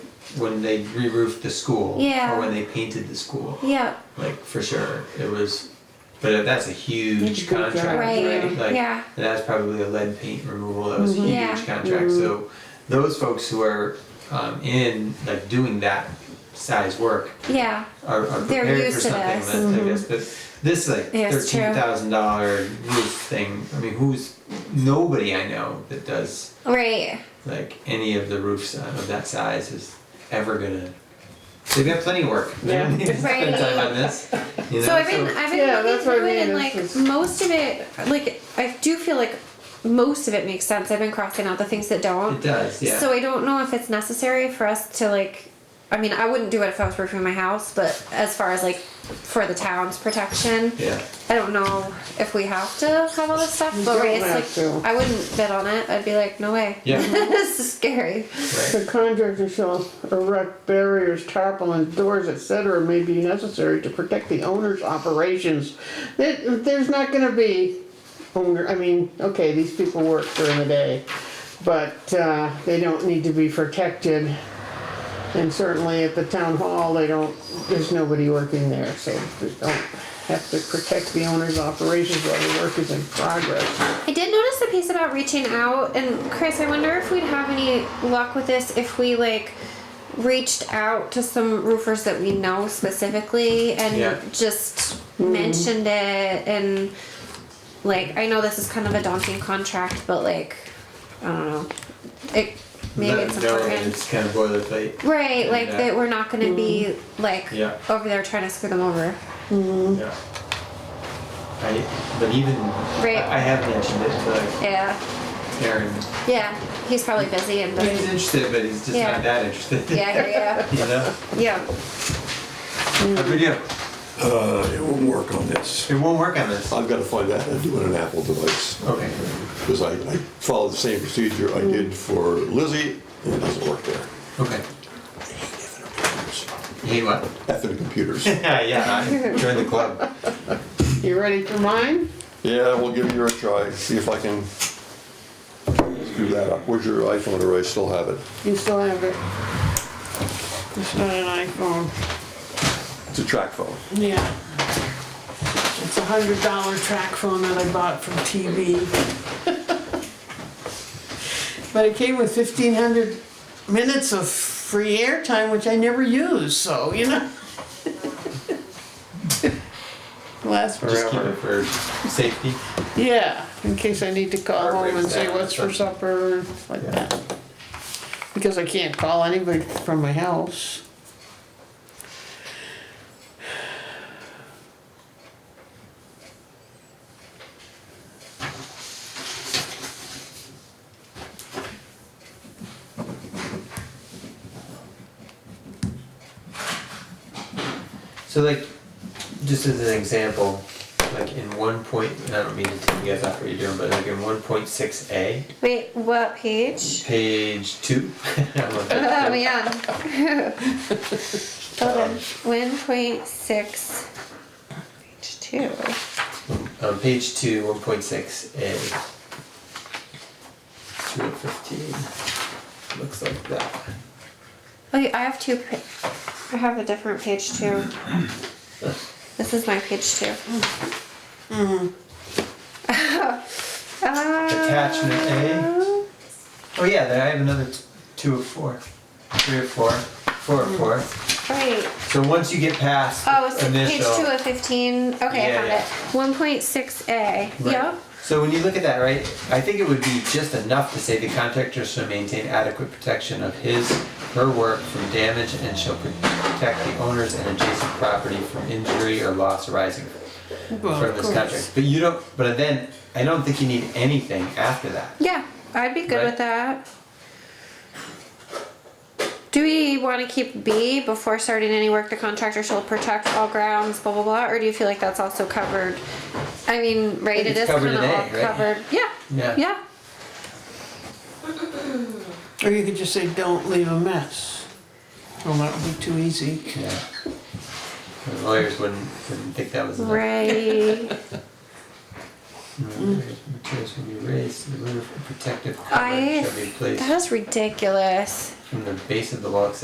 when they re-roofed the school Yeah. or when they painted the school. Yeah, Like for sure, it was. But that's a It's a huge big contract, job, right. Right, Like yeah. and that's probably a lead paint removal. That was a Mhm. huge Yeah. contract. So Mm-hmm. those folks who are um, in like doing that size work Yeah. are, are They're prepared for used to something this. that's I guess Mm-hmm. but this like Yeah, it's true. thirteen thousand dollar roof thing. I mean, who's nobody I know that does Right. like any of the roofs on- of that size is ever gonna. They've got plenty of work. They don't Yeah. need to spend Right. time on this. You know, So I've been I've been Yeah, looking that's what I through it mean, and like it's just- most of it like I do feel like most of it makes sense. I've been crossing out the things that don't. it does. Yeah. So I don't know if it's necessary for us to like. I mean, I wouldn't do it if I was roofing my house, but as far as like for the town's protection, yeah. I don't know if we have to have all this stuff. But don't right, it's have like to. I wouldn't bid on it. I'd be like, no way. Yeah. this is scary. Right. The contractor shall erect barriers, tarpaulins, doors, etc. may be necessary to protect the owner's operations. There- There's not gonna be owner, I mean, okay, these people work during the day, but uh, they don't need to be protected. And certainly at the town hall, they don't, there's nobody working there, so they don't have to protect the owner's operations while the work is in progress. I did notice the piece about reaching out, and Chris, I wonder if we'd have any luck with this if we like reached out to some roofers that we know specifically and Yeah. just mentioned it and like I know this is kind of a daunting contract, but like I don't know, it maybe Let it's them know that important. It's kind of boilerplate. Right, like Yeah. that we're not gonna be like Yeah. over there trying to screw them over. Mm-hmm. Yeah. I, but even Right. I, I have mentioned it to like Yeah, Aaron. yeah. He's probably busy and He's doesn't. interested, but he's just Yeah. not that interested. Yeah, yeah, you know. yeah, yeah. Mm-hmm. But yeah, Uh, it won't work on this. it won't work on this. I've got to find out how to do it on Apple device, Okay. because I, I followed the same procedure I did for Lizzie, and it doesn't work there. Okay. Effing Hey, what? computers. Yeah, yeah. I joined the club. You ready for mine? Yeah, we'll give you a try, see if I can screw that up. Where's your iPhone, or I still have it? You still have it. It's not an iPhone. It's a track phone. Yeah. It's a hundred dollar track phone that I bought from TB. But it came with fifteen hundred minutes of free airtime, which I never use, so, you know? Last Just keep it Forever. for safety. Yeah, in case I need to call home and say what's for supper, like that. Because I can't call anybody from my house. So, like, just as an example, like in one point, and I don't mean to take you guys off what you're doing, but like in 1.6a, Wait, what page? page two. I'm looking Oh at man. Hold on. One point six. Page two. the- um, page two, 1.6a. 2 of 15. Looks like that. Oh, I have two. pa- I have a different page two. This is my page two. Mm-hmm. Attachment A. Uh, Oh, yeah, there, I have another t- 2 of 4. 3 of 4. 4 of 4. Right. So once you get past Hmm. Oh, so initial, page two of fifteen. Okay, Yeah, I found yeah. it. One point six A. Right. Yep. So when you look at that, right, I think it would be just enough to say the contractor shall maintain adequate protection of his, her work from damage and shall protect the owners and adjacent property from injury or loss arising Well, from of this course. contract. But you don't, but then, I don't think you need anything after that. Yeah, I'd be good Right? with that. Do we want to keep B before starting any work? The contractor shall protect all grounds, blah blah blah. Or do you feel like that's also covered? I mean, right? It It's is covered kind of in A, all right? covered. Yeah. Yeah. Yeah. Or you could just say, don't leave a mess. Well, that would be too easy. Yeah. The lawyers wouldn't, wouldn't think that was enough. Right. Mm. Materials will be raised, the roof protective I. coverage shall be That placed is ridiculous. from the base of the wall, etc.